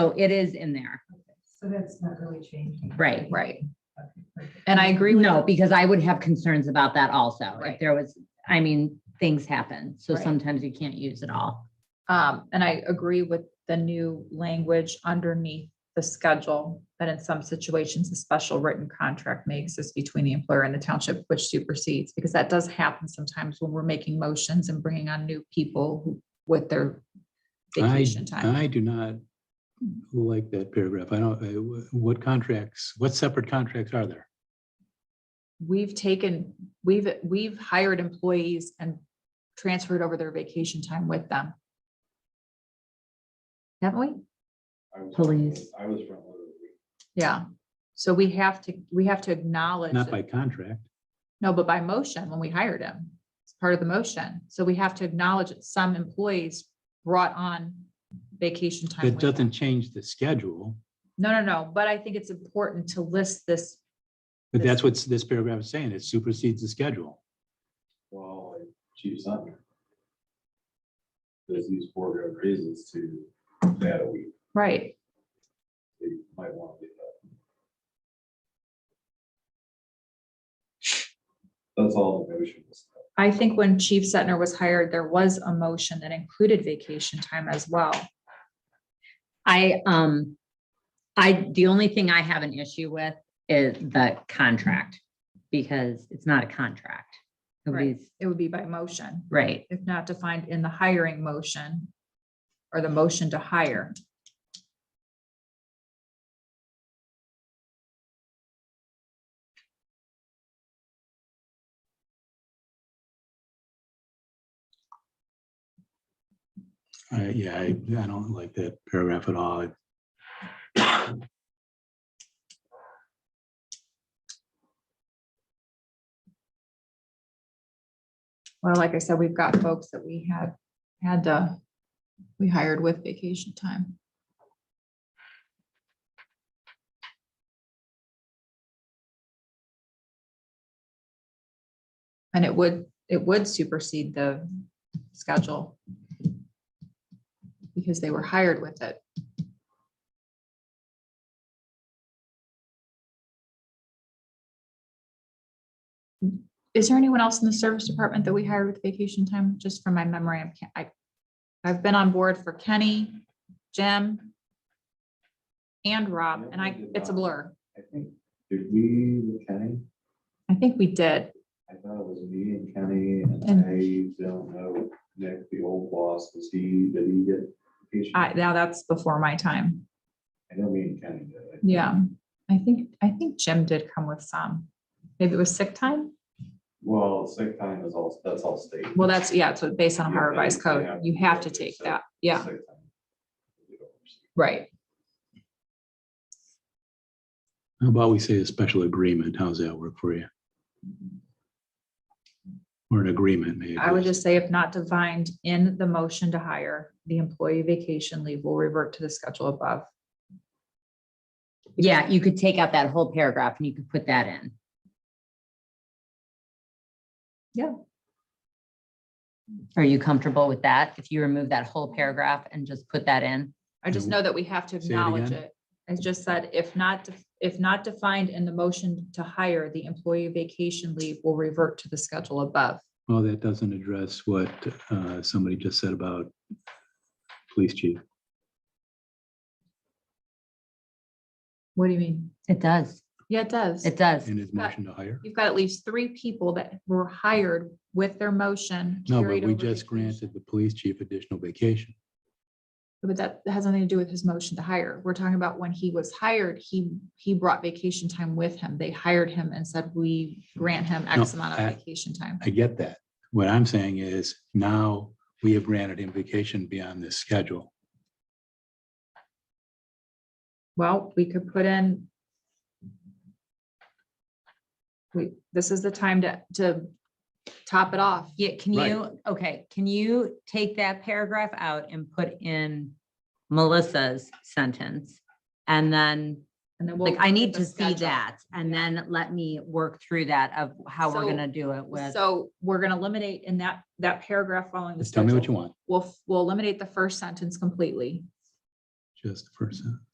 So it is in there, So that's not really changing. right? Right. And I agree with, No, because I would have concerns about that also. If Right. there was, I mean, things happen, so Right. sometimes you can't use it all. um, and I agree with the new language underneath the schedule. That in some situations, a special written contract may exist between the employer and the township which supersedes, because that does happen sometimes when we're making motions and bringing on new people who- with their I, vacation time. I do not like that paragraph. I don't, uh, what contracts, what separate contracts are there? we've taken, we've, we've hired employees and transferred over their vacation time with them. Haven't we? I was- Police. I was front loaded. Yeah. So we have to, we have to acknowledge, Not by that- contract. no, but by motion, when we hired him, it's part of the motion. So we have to acknowledge that some employees brought on vacation time. That with them. doesn't change the schedule, No, no, no, but I think it's important to list this, but that's what this paragraph is saying. It supersedes the schedule. Well, like Chief Sutton. There's these four good reasons to that a week, right? you might want to leave that. That's all the motion was. I think when Chief Setner was hired, there was a motion that included vacation time as well. I, um, I, the only thing I have an issue with is the contract, because it's not a contract. Right. Nobody's, It would be by motion, right, if not defined in the hiring motion or the motion to hire. I yeah, I, I don't like that paragraph at all. Well, like I said, we've got folks that we had, had the, we hired with vacation time. And it would, it would supersede the schedule because they were hired with it. Is there anyone else in the service department that we hired with vacation time? Just from my memory, I'm, ca- I, I've been on board for Kenny, Jim, and Rob, and I, it's a blur. I think, did we, with Kenny? I think we did. I thought it was me and Kenny, and And- I don't know, Nick, the old boss, was he, did he get? vacation? I, now that's before my time. I know me and Kenny did. I think. Yeah. I think, I think Jim did come with some. Maybe it was sick time? Well, sick time is all, that's all state. Well, that's, yeah, so based on our Yeah, revised you code, have you to have go to through take sick- that. Yeah, Sick time. You don't receive. right. How about we say a special agreement? How's that work for you? Or an agreement, maybe. I would just say if not defined in the motion to hire, the employee vacation leave will revert to the schedule above. yeah, you could take out that whole paragraph and you could put that in. Yeah. Are you comfortable with that? If you remove that whole paragraph and just put that in? I just Yeah. know that we have to Say it acknowledge again. it. I just said, if not, def- if not defined in the motion to hire, the employee vacation leave will revert to the schedule above. Well, that doesn't address what uh, somebody just said about police chief. What do you mean? It does, Yeah, it does. it does. In his Got- motion to hire? You've got at least three people that were hired with their motion. No, carried but we over just vacation. granted the police chief additional vacation. But that has nothing to do with his motion to hire. We're talking about when he was hired, he, he brought vacation time with him. They hired him and said, we grant him X No, amount I- of vacation time. I get that. What I'm saying is now we have granted him vacation beyond this schedule. Well, we could put in. We, this is the time to, to top it off. Yeah, can Right. you, okay, can you take that paragraph out and put in Melissa's sentence? And then, And then we'll. like, I need the to see schedule. that, and then let me work through that of how we're So- gonna do it with. So we're gonna eliminate in that, that paragraph following the Just tell me what you want. We'll, we'll eliminate the first sentence completely. just the first sentence.